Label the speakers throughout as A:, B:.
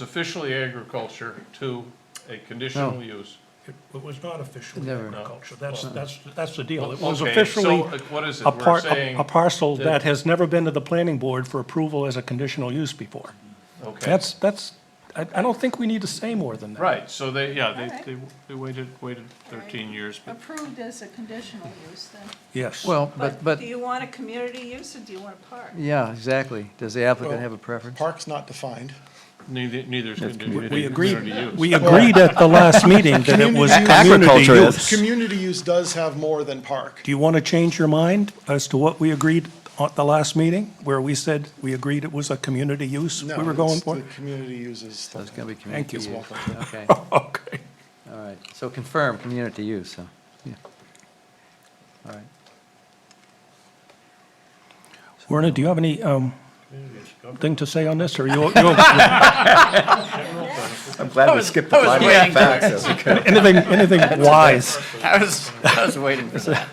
A: It's officially agriculture to a conditional use.
B: It it was not officially
C: Never.
B: agriculture, that's, that's, that's the deal. It was
A: Okay,
B: officially
A: So uh, what is it?
B: a
A: We're
B: par,
A: saying.
B: a parcel
A: that-
B: that has never been to the planning board for approval as a conditional use before.
A: Okay.
B: That's, that's, I, I don't think we need to say more than that.
A: Right, so they, yeah,
D: Alright.
A: they, they, they waited, waited thirteen years, but
D: approved as a conditional use then.
B: Yes.
C: Well, but, but,
D: Do you want a community use or do you want a park?
C: yeah, exactly. Does the applicant
E: Well,
C: have a preference?
E: Park's not defined.
A: neither, neither's
C: That's
A: conditional.
B: We agreed,
A: use.
B: we agreed at the last meeting that it was community
F: Agriculture is.
B: use.
E: Community use does have more than park.
B: Do you want to change your mind as to what we agreed at the last meeting, where we said we agreed it was a community use we
E: No,
B: were going
E: it's
B: for?
E: The community uses.
C: So it's gonna be
B: Thank
C: community
B: you.
C: use. Okay,
B: Okay.
C: all right. So confirm, community use, so, yeah. All right.
B: Werner, do you have any, um, thing to say on this, or you, you,
F: I'm glad we skipped the five
C: waiting
F: facts. That's okay.
B: anything, anything wise?
G: I was, I was waiting for that.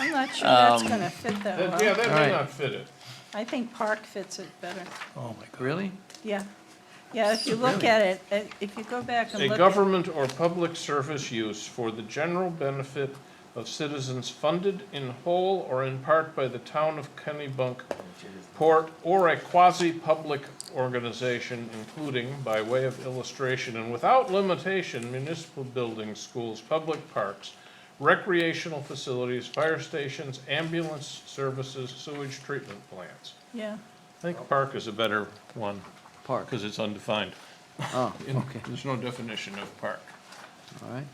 D: I'm not sure that's gonna fit that
A: That- Yeah,
D: well.
A: that
C: Alright.
A: may not fit it.
D: I think park fits it better,
B: Oh, my God.
C: Really?
D: yeah. Yeah, if you look at it, uh, if you go back and
A: A
D: look at
A: government or public service use for the general benefit of citizens funded in whole or in part by the town of Kennebunk Port or a quasi-public organization, including, by way of illustration and without limitation, municipal buildings, schools, public parks, recreational facilities, fire stations, ambulance services, sewage treatment plants.
D: yeah,
A: I think park is a better one,
C: Park,
A: because it's undefined.
C: oh,
A: In-
C: okay,
A: There's no definition of park.
C: all right.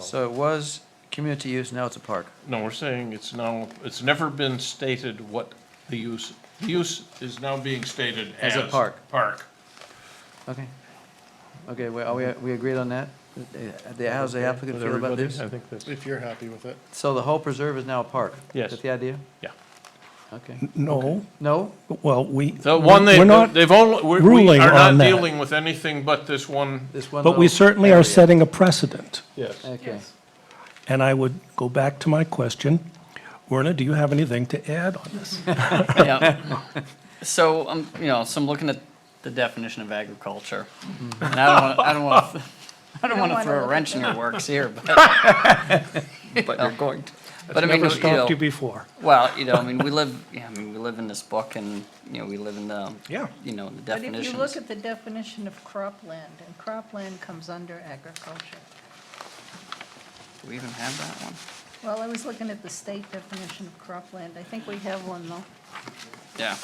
C: So it was community use, now it's a park.
A: No, we're saying it's now, it's never been stated what the use, the use is now being stated as.
C: As a park.
A: Park.
C: Okay. Okay, we, are we, we agreed on that? Uh, the- How's the applicant feel about this?
A: I think that's.
E: If you're happy with it.
C: So the whole preserve is now a park?
A: Yes.
C: Is that the idea?
A: Yeah.
C: Okay.
B: No,
C: No?
B: well, we,
A: The one
B: we're
A: they,
B: not,
A: they've only, we- we
B: ruling
A: are
B: on
A: not
B: that.
A: dealing with anything but this one.
C: This one
B: but we
C: little
B: certainly are
C: area.
B: setting a precedent.
A: Yes.
C: Okay.
B: And I would go back to my question. Werner, do you have anything to add on this?
G: Yeah. So, um, you know, so I'm looking at the definition of agriculture. And I don't want, I don't want, I don't want to
D: wanna
G: throw
D: look
G: a
D: at
G: wrench in your works here, but. But you're going to. But I mean,
B: Never
G: you know,
B: stopped you before.
G: well, you know, I mean, we live, yeah, I mean, we live in this book and, you know, we live in the,
B: Yeah.
G: you know, the
D: but if
G: definitions.
D: you look at the definition of cropland, and cropland comes under agriculture.
G: Do we even have that one?
D: Well, I was looking at the state definition of cropland, I think we have one though.
G: Yeah.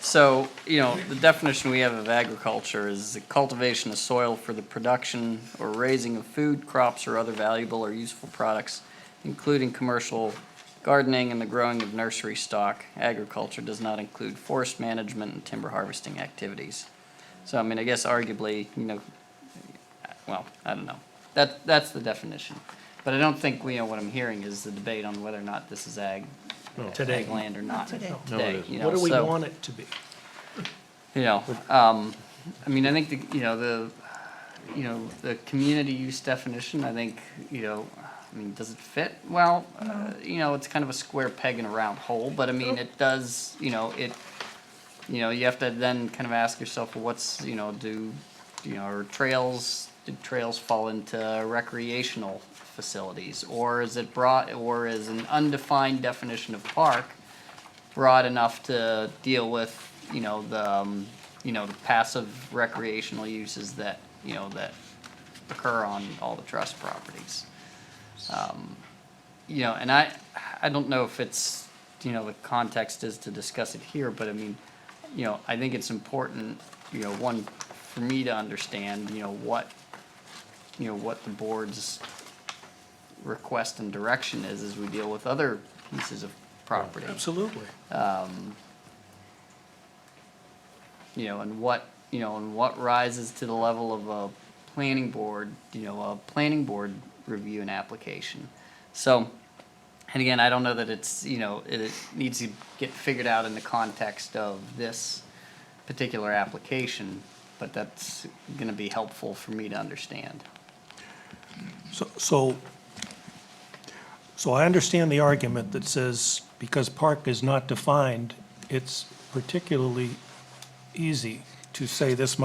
G: So, you know, the definition we have of agriculture is the cultivation of soil for the production or raising of food, crops, or other valuable or useful products, including commercial gardening and the growing of nursery stock. Agriculture does not include forest management and timber harvesting activities. So, I mean, I guess arguably, you know, well, I don't know. That, that's the definition. But I don't think, you know, what I'm hearing is the debate on whether or not this is ag,
B: Today.
G: ag land or not.
D: today. No, it
G: Today, you know,
B: What do we
G: so-
B: want it to be?
G: you know, um, I mean, I think the, you know, the, you know, the community use definition, I think, you know, I mean, does it fit? Well, uh, you know, it's kind of a square peg in a round hole, but I mean, it does, you know, it, you know, you have to then kind of ask yourself, well, what's, you know, do, you know, are trails, do trails fall into recreational facilities? Or is it broad, or is an undefined definition of park broad enough to deal with, you know, the, um, you know, the passive recreational uses that, you know, that occur on all the trust properties. Um, You know, and I, I don't know if it's, you know, the context is to discuss it here, but I mean, you know, I think it's important, you know, one, for me to understand, you know, what, you know, what the board's request and direction is as we deal with other pieces of property
B: Absolutely.
G: you know, and what, you know, and what rises to the level of a planning board, you know, a planning board review and application. So, and again, I don't know that it's, you know, it, it needs to get figured out in the context of this particular application, but that's gonna be helpful for me to understand.
B: So- So, so I understand the argument that says, because park is not defined, it's particularly easy to say this much